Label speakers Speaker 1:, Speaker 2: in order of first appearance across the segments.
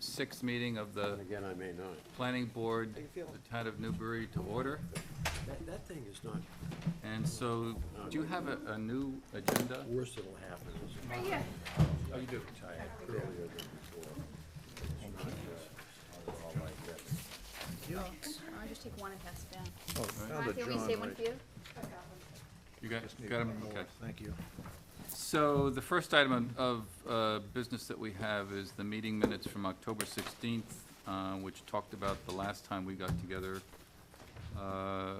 Speaker 1: sixth meeting of the
Speaker 2: And again, I may not.
Speaker 1: planning board,
Speaker 2: How you
Speaker 1: the
Speaker 2: feeling?
Speaker 1: town of Newbury to order.
Speaker 2: That, that thing is not
Speaker 1: And so, do you have a, a new agenda?
Speaker 2: worse than what happened. It's
Speaker 3: Right here.
Speaker 1: Oh, you do.
Speaker 2: tired earlier than before. It's not just all like that.
Speaker 3: I'll just take one and pass it down.
Speaker 4: Oh, now
Speaker 3: Martha,
Speaker 4: that
Speaker 3: you want me to
Speaker 4: John
Speaker 3: save one
Speaker 4: might-
Speaker 3: for you?
Speaker 1: You got,
Speaker 4: just need
Speaker 1: got 'em?
Speaker 4: one more.
Speaker 1: Okay.
Speaker 4: Thank you.
Speaker 1: So the first item of uh, business that we have is the meeting minutes from October 16th, uh, which talked about the last time we got together. Uh, uh,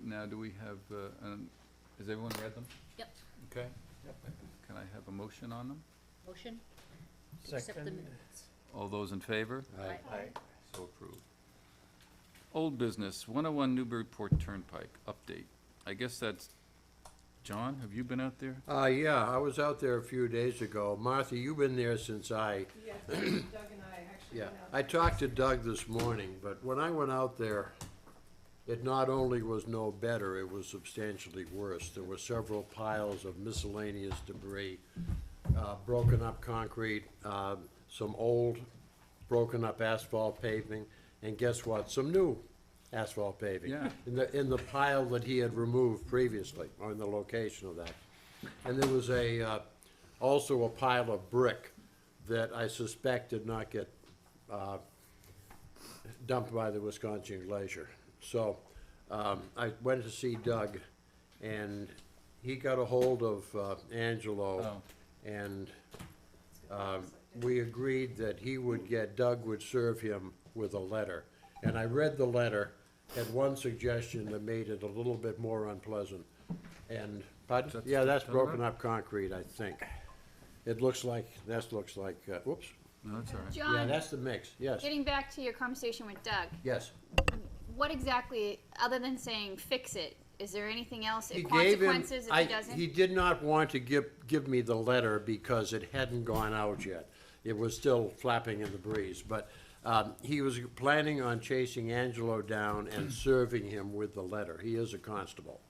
Speaker 1: Now, do we have, uh, um, has everyone read them?
Speaker 3: Yep.
Speaker 1: Okay. Can I have a motion on them?
Speaker 3: Motion? to Accept the minutes.
Speaker 1: All those in favor?
Speaker 2: Aye.
Speaker 3: Aye.
Speaker 1: So approved. Old business, 101 Newburyport Turnpike, update. I guess that's, John, have you been out there?
Speaker 2: Uh, yeah, I was out there a few days ago. Martha, you've been there since I
Speaker 5: Yeah, Doug and I actually
Speaker 2: Yeah,
Speaker 5: went out.
Speaker 2: I talked to Doug this morning, but when I went out there, it not only was no better, it was substantially worse. There were several piles of miscellaneous debris, uh, broken up concrete, uh, some old broken up asphalt paving, and guess what? Some new asphalt paving.
Speaker 1: Yeah.
Speaker 2: In the, in the pile that he had removed previously, or in the location of that. And there was a, uh, also a pile of brick that I suspect did not get uh, dumped by the Wisconsin Glacier. So um, I went to see Doug, and he got a hold of uh, Angelo, and um, we agreed that he would get, Doug would serve him with a letter. And I read the letter, had one suggestion that made it a little bit more unpleasant. And, pardon?
Speaker 1: That's
Speaker 2: Yeah, that's
Speaker 1: September?
Speaker 2: broken up concrete, I think. It looks like, that looks like, uh, whoops.
Speaker 1: No, that's all right.
Speaker 2: Yeah,
Speaker 3: John,
Speaker 2: that's the mix, yes,
Speaker 3: getting back to your conversation with Doug,
Speaker 2: yes.
Speaker 3: what exactly, other than saying fix it, is there anything else,
Speaker 2: He gave him-
Speaker 3: consequences if
Speaker 2: I-
Speaker 3: he doesn't?
Speaker 2: He did not want to give, give me the letter because it hadn't gone out yet. It was still flapping in the breeze, but, um, he was planning on chasing Angelo down and serving him with the letter. He is a constable,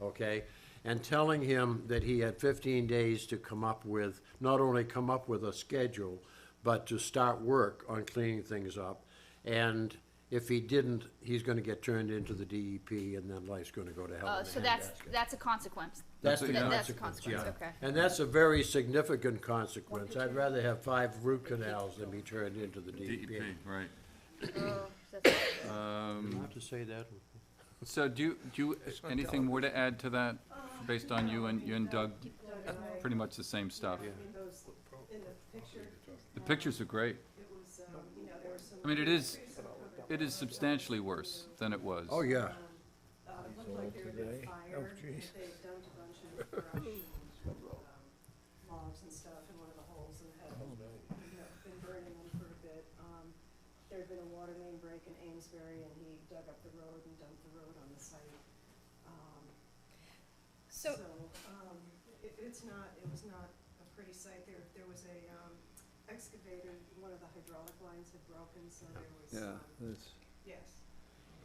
Speaker 2: okay? And telling him that he had fifteen days to come up with, not only come up with a schedule, but to start work on cleaning things up. And if he didn't, he's gonna get turned into the DEP and then life's gonna go to hell
Speaker 3: Oh,
Speaker 2: in a
Speaker 3: so that's,
Speaker 2: handbasket.
Speaker 3: that's a consequence.
Speaker 2: That's the
Speaker 1: Th-
Speaker 3: that's the
Speaker 2: consequence, yeah.
Speaker 3: consequence, okay.
Speaker 2: And that's a very significant consequence. I'd rather have five root canals than be turned into the E
Speaker 1: DEP,
Speaker 2: DEP.
Speaker 1: E right.
Speaker 3: Oh, that's-
Speaker 2: You have to say that.
Speaker 1: So do you, do you, anything more to add to that,
Speaker 5: Uh,
Speaker 1: based on you and, you and Doug? Uh,
Speaker 5: Doug and I,
Speaker 1: Pretty much the same stuff.
Speaker 5: I mean, those in the picture,
Speaker 1: The pictures are great.
Speaker 5: it was, um, you know, there were some.
Speaker 1: I mean, it is,
Speaker 5: some cover-
Speaker 1: it is substantially worse than it was.
Speaker 2: Oh, yeah.
Speaker 5: Uh, it looked like there had been
Speaker 4: today. Oh,
Speaker 5: fire, that they
Speaker 4: geez.
Speaker 5: had dumped a bunch of brush and, um, logs and stuff in one of the holes and had,
Speaker 4: Oh,
Speaker 5: you know, been burning them for a bit. Um, there'd been a water main break in Amesbury and he dug up the road and dumped the road on the site. Um, So,
Speaker 3: So,
Speaker 5: um, it, it's not, it was not a pretty sight, there, there was a, um, excavator, one of the hydraulic lines had broken, so there was, um,
Speaker 4: that's.
Speaker 5: yes.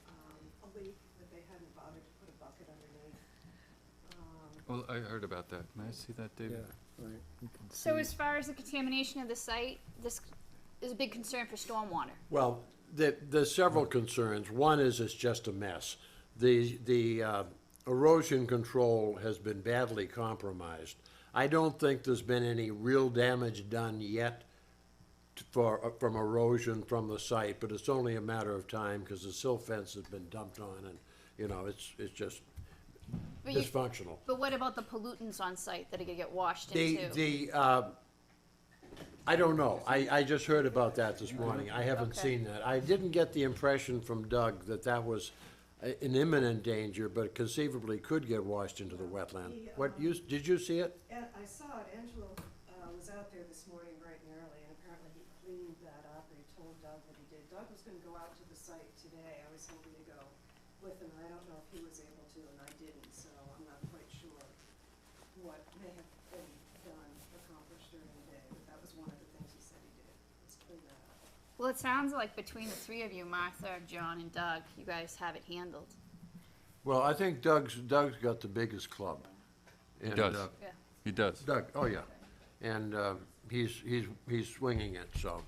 Speaker 5: Um, a leak that they hadn't bothered to put a bucket underneath, um,
Speaker 1: Well, I heard about that. May I see that, David?
Speaker 4: right, you can
Speaker 3: so
Speaker 4: see.
Speaker 3: as far as the contamination of the site, this is a big concern for stormwater.
Speaker 2: Well, there, there's several concerns. One is it's just a mess. The, the uh, erosion control has been badly compromised. I don't think there's been any real damage done yet t- for, uh, from erosion from the site, but it's only a matter of time because the silt fence has been dumped on and, you know, it's, it's just
Speaker 3: But you-
Speaker 2: dysfunctional.
Speaker 3: But what about the pollutants on site that are gonna get washed
Speaker 2: The,
Speaker 3: into?
Speaker 2: the, uh, I don't know. I, I just heard about that this morning. I haven't
Speaker 3: Mm-hmm. Okay.
Speaker 2: seen that. I didn't get the impression from Doug that that was a- an imminent danger, but conceivably could get washed into the wetland. What, you, did you see it?
Speaker 5: And I saw it, Angelo, uh, was out there this morning bright and early, and apparently he cleaned that up, or he told Doug that he did. Doug was gonna go out to the site today, I was hoping to go with him, and I don't know if he was able to, and I didn't, so I'm not quite sure what may have been done, accomplished during the day, but that was one of the things he said he did, was clean that up.
Speaker 3: Well, it sounds like between the three of you, Martha, John, and Doug, you guys have it handled.
Speaker 2: Well, I think Doug's, Doug's got the biggest club. He
Speaker 1: does. He does.
Speaker 2: uh, Doug, oh yeah. And, uh, he's, he's, he's swinging it, so.